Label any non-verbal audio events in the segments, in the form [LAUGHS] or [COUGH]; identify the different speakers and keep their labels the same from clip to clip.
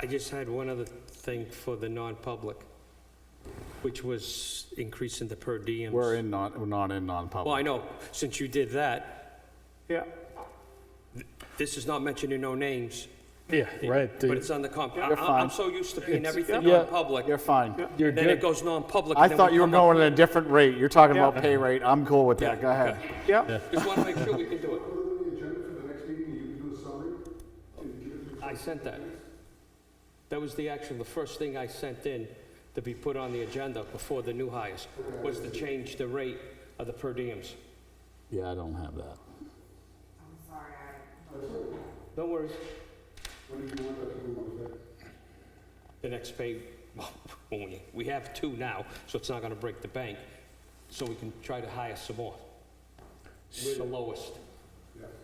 Speaker 1: I just had one other thing for the non-public, which was increasing the per diems.
Speaker 2: We're in non, we're not in
Speaker 1: Well, I
Speaker 2: non-public.
Speaker 1: know, since you did that,
Speaker 2: Yeah.
Speaker 1: this is not mentioning no names,
Speaker 3: Yeah, right.
Speaker 1: but
Speaker 3: the-
Speaker 1: it's on the comp. I-
Speaker 2: You're
Speaker 1: I- I'm
Speaker 2: fine.
Speaker 1: so used to paying everything
Speaker 3: yeah.
Speaker 1: non-public,
Speaker 2: You're fine.
Speaker 3: You're
Speaker 1: then it
Speaker 3: good.
Speaker 1: goes non-public.
Speaker 2: I
Speaker 1: and then we
Speaker 2: thought you were
Speaker 1: come up-
Speaker 2: going at a different rate. You're talking about
Speaker 1: Yeah.
Speaker 2: pay rate. I'm cool with that.
Speaker 1: Yeah,
Speaker 2: Go ahead.
Speaker 1: Just want to make sure we can do it.
Speaker 4: Put it on the agenda for the next meeting, you can do a summary. and give it to-
Speaker 1: I sent that. That was the action, the first thing I sent in to be put on the agenda before the new hires, was to change the rate of the per diems.
Speaker 2: Yeah, I don't have that.
Speaker 1: Don't worry,
Speaker 4: When do you want that to go on that?
Speaker 1: the next pay, well, [LAUGHS] when we- we have two now, so it's not gonna break the bank, so we can try to hire some more. We're the lowest.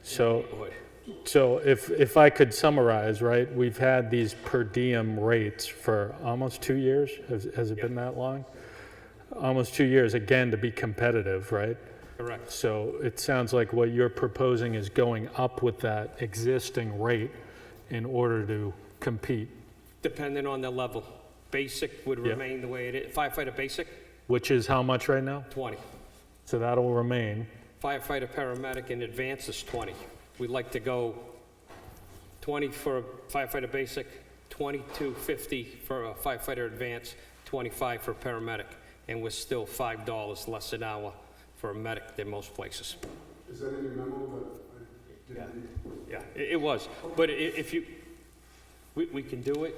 Speaker 3: So,
Speaker 1: Boy,
Speaker 3: so if, if I could summarize, right, we've had these per diem rates for almost two years. Has, has it been that long? Almost two years, again, to be competitive, right?
Speaker 1: Correct,
Speaker 3: So it sounds like what you're proposing is going up with that existing rate in order to compete,
Speaker 1: depending on the level. Basic would
Speaker 3: Yeah.
Speaker 1: remain the way it is, firefighter basic,
Speaker 3: which is how much right now?
Speaker 1: 20.
Speaker 3: So that'll remain.
Speaker 1: Firefighter, paramedic, in advance is 20. We'd like to go 20 for a firefighter basic, 2250 for a firefighter advance, 25 for paramedic, and we're still $5 less an hour for a medic than most places.
Speaker 4: Is that in your memo that I didn't read?
Speaker 1: Yeah, it it was, but i- if you, we we can do it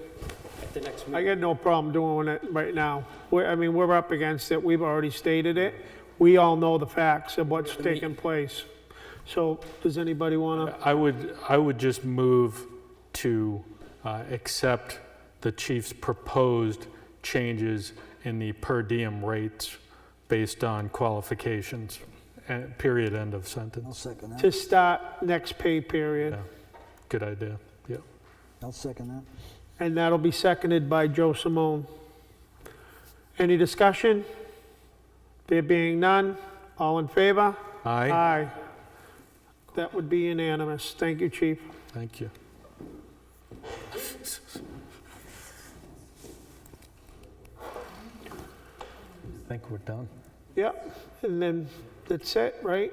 Speaker 1: at the next
Speaker 5: I
Speaker 1: meeting.
Speaker 5: got no problem doing it right now. We're, I mean, we're up against it, we've already stated it. We all know the facts of what's taking place. So, does anybody wanna,
Speaker 3: I would, I would just move to uh, accept the chief's proposed changes in the per diem rates based on qualifications, and period, end of
Speaker 6: I'll
Speaker 3: sentence.
Speaker 6: second that.
Speaker 5: to start next pay period?
Speaker 3: Good idea, yeah.
Speaker 6: I'll second that.
Speaker 5: And that'll be seconded by Joe Simone. Any discussion? There being none, all in favor?
Speaker 3: Aye,
Speaker 5: Aye. That would be unanimous. Thank you, chief.
Speaker 3: thank you. I think we're done.
Speaker 5: Yep, and then that's it, right?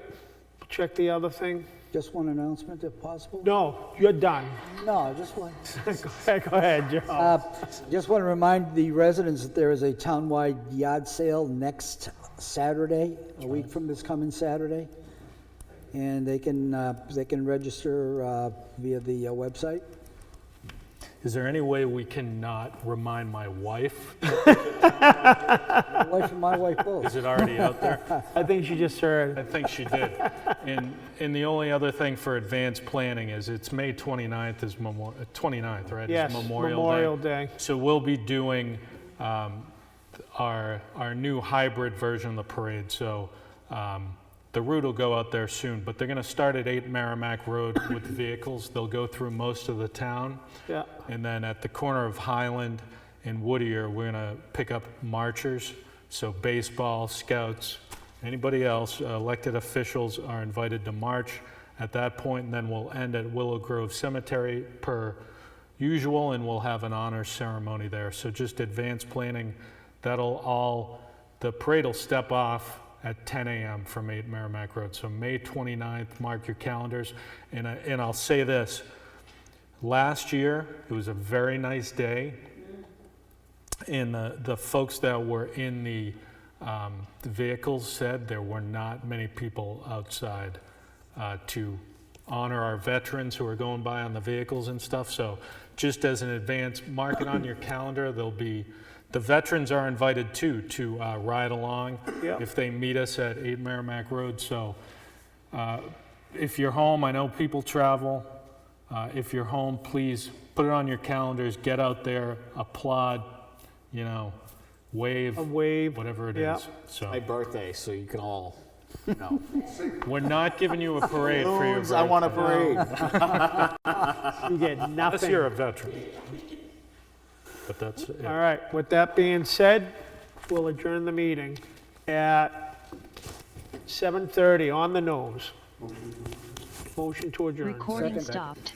Speaker 5: Check the other thing.
Speaker 6: Just one announcement if possible?
Speaker 5: No, you're done. [LAUGHS]
Speaker 6: No, just one.
Speaker 5: Go ahead, Joe.
Speaker 6: Uh, Just want to remind the residents that there is a townwide yard sale next Saturday, a week from this coming Saturday. And they can, uh, they can register uh, via the uh, website.
Speaker 3: Is there any way we cannot remind my wife?
Speaker 6: My wife and my wife both.
Speaker 3: Is it already out there?
Speaker 5: I think she just heard.
Speaker 3: I think she did. And, and the only other thing for advanced planning is it's May 29th is Memorial, 29th, right? is
Speaker 5: Yes, Memorial Day.
Speaker 3: So we'll be doing um, our, our new hybrid version of the parade. So um, the route will go out there soon, but they're going to start at 8 Merrimack Road with vehicles. They'll go through most of the town.
Speaker 5: Yeah.
Speaker 3: And then at the corner of Highland and Whittier, we're going to pick up marchers. So baseball, scouts, anybody else, uh, elected officials are invited to march at that point, and then we'll end at Willow Grove Cemetery per usual, and we'll have an honor ceremony there. So just advance planning. That'll all, the parade will step off at 10 a.m. from 8 Merrimack Road. So May 29th, mark your calendars. And, I, and I'll say this, Last year, it was a very nice day. And the, the folks that were in the, um, the vehicles said there were not many people outside uh, to honor our veterans who are going by on the vehicles and stuff. So just as an advance, mark it on your calendar. There'll be, the veterans are invited too to uh, ride along
Speaker 5: Yeah.
Speaker 3: if they meet us at 8 Merrimack Road. So if you're home, I know people travel. Uh, if you're home, please put it on your calendars. Get out there, applaud, you know, wave,
Speaker 5: A wave.
Speaker 3: whatever it is.
Speaker 5: yeah.
Speaker 2: My
Speaker 3: So
Speaker 2: birthday, so you can all, no.
Speaker 3: we're not giving you a parade for your
Speaker 2: Balloons,
Speaker 3: birthday.
Speaker 2: I want a parade.
Speaker 5: You
Speaker 3: [LAUGHS]
Speaker 5: get
Speaker 3: Unless you're a
Speaker 5: nothing.
Speaker 3: veteran. But that's it.
Speaker 5: All right, with that being said, we'll adjourn the meeting at 7:30 on the nose. Motion to adjourn.
Speaker 7: Recording stopped.